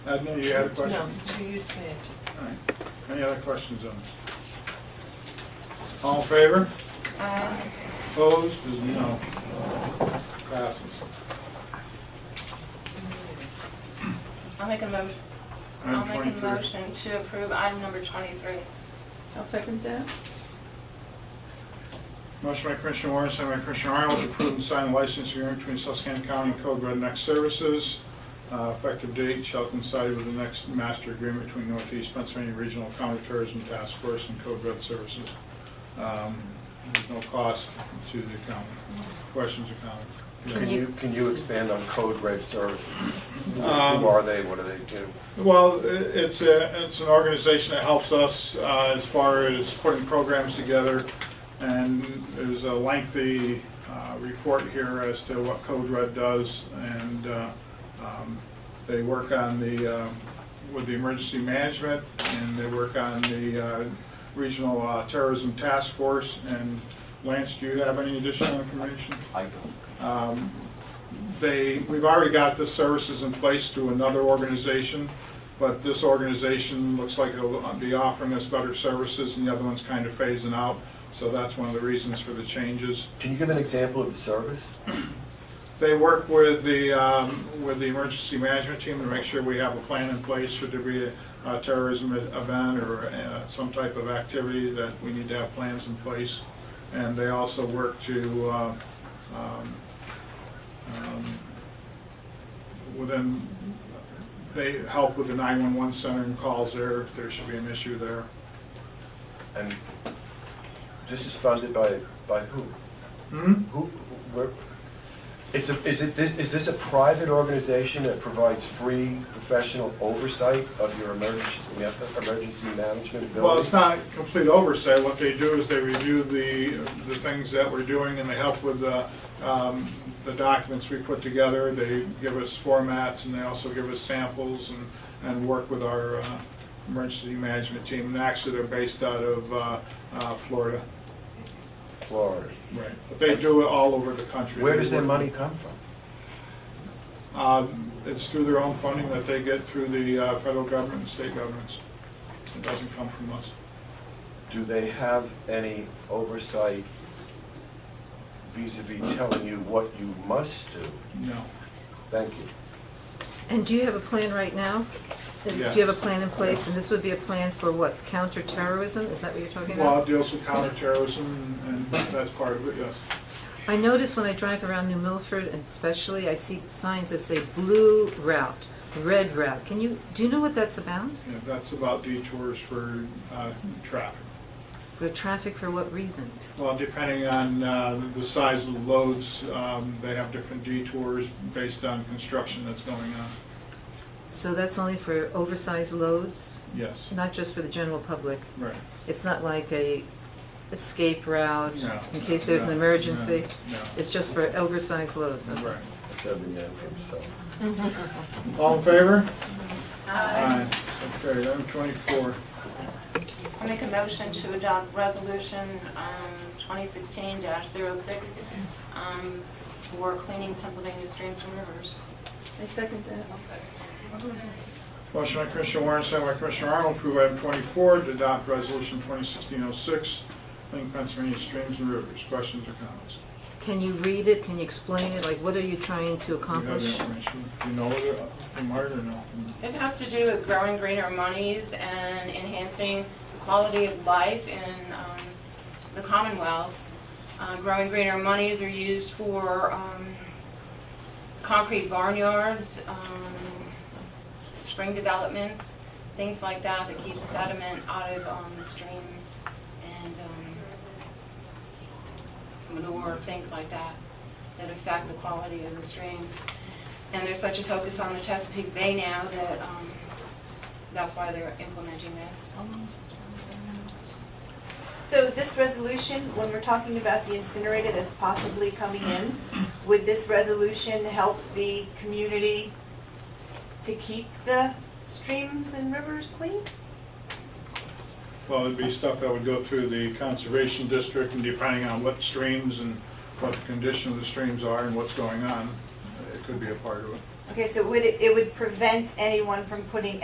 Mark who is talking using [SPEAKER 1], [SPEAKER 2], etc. [SPEAKER 1] Admin, you had a question?
[SPEAKER 2] No, you- you can answer.
[SPEAKER 1] All right. Any other questions on this? All in favor?
[SPEAKER 3] Uh,
[SPEAKER 1] Opposed, is no. Passes.
[SPEAKER 3] I'll make a mo, I'll
[SPEAKER 1] Item
[SPEAKER 3] make a
[SPEAKER 1] 23.
[SPEAKER 3] motion to approve item number twenty-three.
[SPEAKER 4] I'll second that.
[SPEAKER 1] Motion by Commissioner Warren, second by Commissioner Arnold, to approve and sign license agreement between Susquehanna County and Code Red Neck Services. Uh, Effective date shall coincide with the next master agreement between Northeast Pennsylvania Regional Counterterrorism Task Force and Code Red Services. Um, There's no cost to the county. Questions or comments?
[SPEAKER 5] Can you, can you expand on Code Red Services? Who
[SPEAKER 1] Um,
[SPEAKER 5] who are they, what do they do?
[SPEAKER 1] Well, i- it's a, it's an organization that helps us uh, as far as putting programs together. And there's a lengthy uh, report here as to what Code Red does. And uh, um, they work on the, um, with the emergency management and they work on the uh, regional uh, terrorism task force. And Lance, do you have any additional information?
[SPEAKER 6] I don't.
[SPEAKER 1] Um, They, we've already got the services in place through another organization, but this organization looks like it'll be offering us better services, and the other one's kind of phasing out, so that's one of the reasons for the changes.
[SPEAKER 5] Can you give an example of the service?
[SPEAKER 1] They work with the, um, with the emergency management team to make sure we have a plan in place should there be a terrorism e-, event or uh, some type of activity that we need to have plans in place. And they also work to, uh, um, um, within, they help with the 911 center and calls there if there should be an issue there.
[SPEAKER 5] And this is funded by, by who?
[SPEAKER 1] Hmm?
[SPEAKER 5] Who, where, it's a, is it, this- is this a private organization that provides free professional oversight of your emergency, emergency management ability?
[SPEAKER 1] Well, it's not complete oversight. What they do is they review the, the things that we're doing and they help with the, um, the documents we put together. They give us formats and they also give us samples and, and work with our, uh, emergency management team. And actually, they're based out of, uh, uh, Florida.
[SPEAKER 5] Florida.
[SPEAKER 1] Right. But they do it all over the country.
[SPEAKER 5] Where does their
[SPEAKER 1] They
[SPEAKER 5] money
[SPEAKER 1] work-
[SPEAKER 5] come from?
[SPEAKER 1] Um, it's through their own funding that they get through the, uh, federal government and state governments. It doesn't come from us.
[SPEAKER 5] Do they have any oversight vis-à-vis telling you what you must do?
[SPEAKER 1] No.
[SPEAKER 5] Thank you.
[SPEAKER 4] And do you have a plan right now? Do you have a plan in place, and this would be a plan for what, counterterrorism, is that what you're talking
[SPEAKER 1] Well,
[SPEAKER 4] about?
[SPEAKER 1] it deals with counterterrorism, and that's part of it, yes.
[SPEAKER 4] I notice when I drive around New Milford, and especially, I see signs that say blue route, red route, can you, do you know what that's about?
[SPEAKER 1] Yeah, That's about detours for uh, traffic.
[SPEAKER 4] For traffic, for what reason?
[SPEAKER 1] Well, depending on uh, the size of the loads, um, they have different detours based on construction that's going on,
[SPEAKER 4] So that's only for oversized loads,
[SPEAKER 1] yes.
[SPEAKER 4] not just for the general public?
[SPEAKER 1] Right.
[SPEAKER 4] It's not like a escape route,
[SPEAKER 1] No,
[SPEAKER 4] in case there's an
[SPEAKER 1] no,
[SPEAKER 4] emergency?
[SPEAKER 1] no, no.
[SPEAKER 4] It's just for oversized loads, okay?
[SPEAKER 1] Right.
[SPEAKER 5] That's every man for himself.
[SPEAKER 1] All in favor? Aye. So carried. Item 24.
[SPEAKER 3] I'll make a motion to adopt resolution, um, twenty sixteen 6 um, for cleaning Pennsylvania streams and rivers.
[SPEAKER 4] I second that.
[SPEAKER 1] Motion by Commissioner Warren, second by Commissioner Arnold, approve item 24, to adopt resolution 2016-06, link Pennsylvania streams and rivers. Questions or comments?
[SPEAKER 4] Can you read it? Can you explain it? Like, what are you trying to
[SPEAKER 1] Do you have the
[SPEAKER 4] accomplish?
[SPEAKER 1] information? Do you know it, uh, from Margaret or no?
[SPEAKER 3] It has to do with growing greener monies and enhancing the quality of life in um, the Commonwealth. Uh, Growing greener monies are used for um, concrete barnyards, um, spring developments, things like that that keeps sediment out of um, the streams and um, manure, things like that, that affect the quality of the streams. And there's such a focus on the Chesapeake Bay now that, um, that's why they're implementing this.
[SPEAKER 7] So this resolution, when we're talking about the incinerator that's possibly coming in, would this resolution help the community to keep the streams and rivers clean?
[SPEAKER 1] Well, it'd be stuff that would go through the conservation district and depending on what streams and what the condition of the streams are and what's going on, it could be a part of it.
[SPEAKER 7] Okay, so would it, it would prevent anyone from putting